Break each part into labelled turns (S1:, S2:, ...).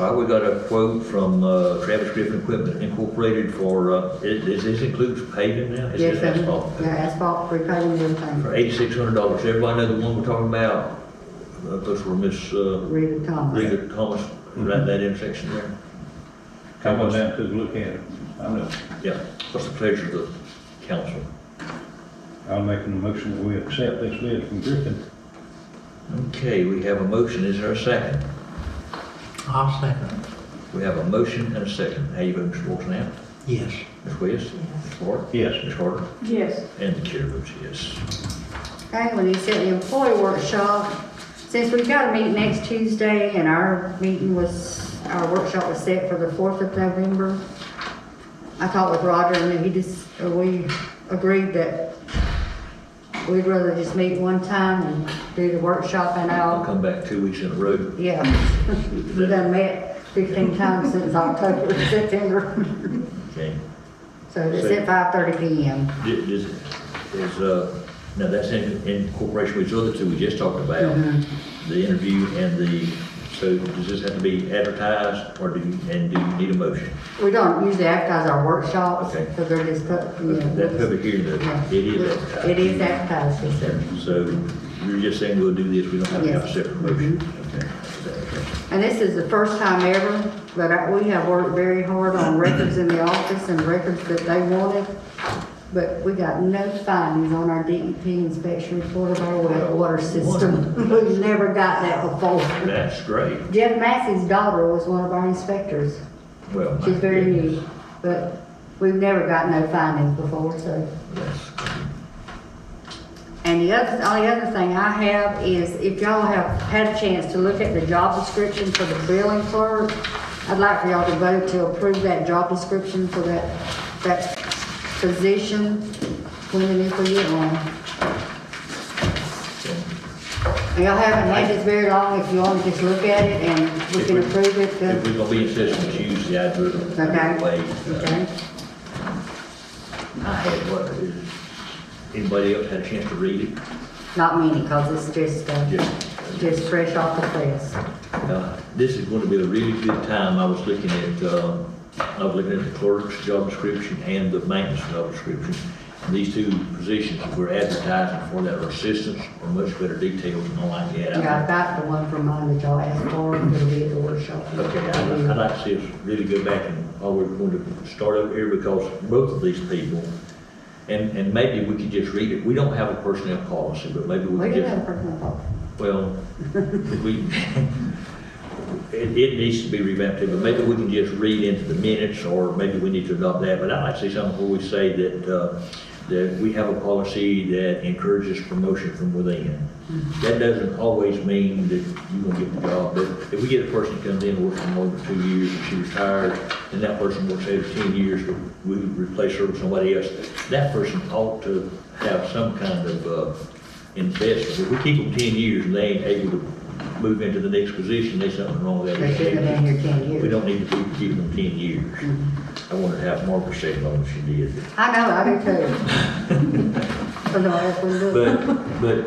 S1: All right, we got a quote from uh, Travis Griffin Equipment Incorporated for, uh, is- does this include paving now? Is
S2: Yes,
S1: this
S2: sir.
S1: asphalt?
S2: Yeah, asphalt, pre-paving, everything.
S1: For eighty-six hundred dollars. Everybody know the one we're talking about? Uh, Those were Miss uh,
S2: Rita Thomas.
S1: Rita Thomas, right in that intersection there.
S3: Come on down, take a look at it. I know.
S1: Yeah, what's the pleasure of the council?
S3: I'm making a motion that we accept this bid from Griffin.
S1: Okay, we have a motion. Is there a second?
S4: I'll second,
S1: We have a motion and a second. How you vote, Mr. Wilson, now?
S4: yes.
S1: Ms. West? Ms. Ford?
S3: Yes.
S1: Ms. Carter?
S5: Yes.
S1: And the chair votes yes.
S2: Okay, when he said the employee workshop, since we've got a meeting next Tuesday and our meeting was, our workshop was set for the fourth of November, I talked with Roger and he just, uh, we agreed that we'd rather just meet one time and do the workshop and
S1: I'll
S2: I'll,
S1: come back two weeks in a row.
S2: yeah. We've done met fifteen times since October, September.
S1: Okay.
S2: So it's at five thirty P M.
S1: Di- Is, is, uh, now that's in, in cooperation with the other two we just talked about,
S2: Mm-hmm.
S1: the interview and the, so does this have to be advertised or do you, and do you need a motion?
S2: We don't usually advertise our workshops,
S1: Okay.
S2: because they're just, put- you know.
S1: That public hearing, though,
S2: yeah.
S1: it is advertised.
S2: It is advertised, yes, sir.
S1: So you're just saying we'll do this, we don't have to have a
S2: Yes. Mm-hmm.
S1: separate motion? Okay.
S2: And this is the first time ever, but I- we have worked very hard on records in the office and records that they wanted. But we got no findings on our DEP inspection report of our wa- water system. We've never got that before.
S1: That's great.
S2: Jeff Massey's daughter was one of our inspectors.
S1: Well. my
S2: She's very
S1: goodness.
S2: new, but we've never got no findings before, so.
S1: That's-
S2: And the other, the only other thing I have is if y'all have had a chance to look at the job description for the billing clerk, I'd like for y'all to vote to approve that job description for that, that position when it is for you on. And Y'all haven't had this very long, if you want to just look at it and we can approve it,
S1: If
S2: then,
S1: we're gonna be in session Tuesday, I'd rather.
S2: Okay.
S1: wait.
S2: okay?
S1: I had, what, is, anybody else had a chance to read it?
S2: Not many, cause it's just, uh,
S1: Yeah.
S2: just fresh off the press.
S1: Uh, This is going to be a really good time. I was looking at, uh, I was looking at the clerk's job description and the maintenance job description. And These two positions that we're advertising for that are assistants are much better detailed than all I get.
S2: Yeah, I've got the one from mine that y'all asked for, it'll be at the workshop.
S1: Okay, I'd I'd like to see us really go back and, oh, we're going to start over here because both of these people, and, and maybe we could just read it. We don't have a personnel policy, but maybe we
S2: We
S1: could
S2: do
S1: just.
S2: have a personal policy.
S1: Well, we, it, it needs to be revamped, too, but maybe we can just read into the minutes, or maybe we need to adopt that, but I'd like to see something where we say that, uh, that we have a policy that encourages promotion from within. That doesn't always mean that you will get the job, but if we get a person that comes in, works for more than two years, and she retires, and that person works over ten years, but we replace her with somebody else, that person ought to have some kind of, uh, investment. If we keep them ten years and they ain't able to move into the next position, there's something wrong with that.
S2: They shouldn't have been here 10 years. Mm-hmm.
S1: We don't need to keep keeping them ten years. I wanted to have Margaret say it like she did.
S2: I know, I do too. But no, that's what we do.
S1: But, but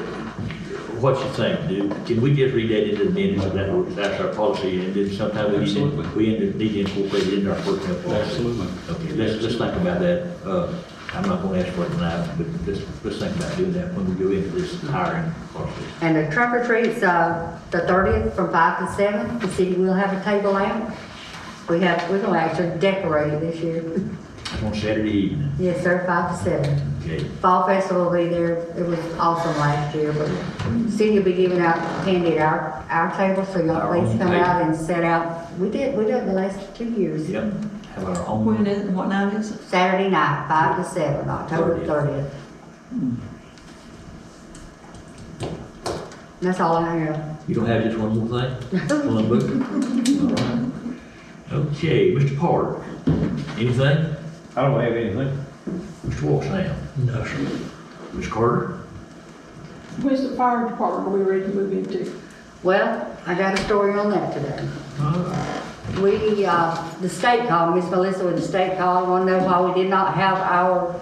S1: what you think, dude? Can we just read that into the minutes and that, that's our policy and then sometime we need to,
S3: Absolutely.
S1: we end up needing to incorporate it into our personnel policy?
S3: Absolutely.
S1: Okay, let's, let's think about that. Uh, I'm not gonna ask for it tonight, but let's, let's think about doing that when we go into this hiring process.
S2: And the trunk or treat's, uh, the thirtieth from five to seven, the city will have a table out. We have, we're gonna actually decorate it this year.
S1: It's on Saturday evening.
S2: Yes, sir, five to seven.
S1: Okay,
S2: Fall Festival will be there, it was awesome last year, but city will be giving out candy at our, our table, so y'all
S1: Our own
S2: please come
S1: table.
S2: out and set out. We did, we did the last two years.
S1: yep, have our
S5: When
S1: own,
S5: is, what night is it?
S2: Saturday night, five to seven, October
S1: 30th.
S2: thirtieth. That's all I have.
S1: you don't have just one more thing? One book? All right. Okay, Mr. Porter, anything?
S3: I don't have anything.
S1: Mr. Walksnail? No, sir. Ms. Carter?
S5: When's the fire department we ready to move into?
S2: Well, I got a story on that today. We, uh, the state called, Miss Melissa with the state called, wanna know why we did not have our,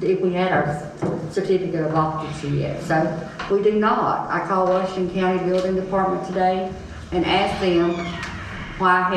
S2: if we had our certificate of occupancy yet. So we do not. I called Washington County Building Department today and asked them why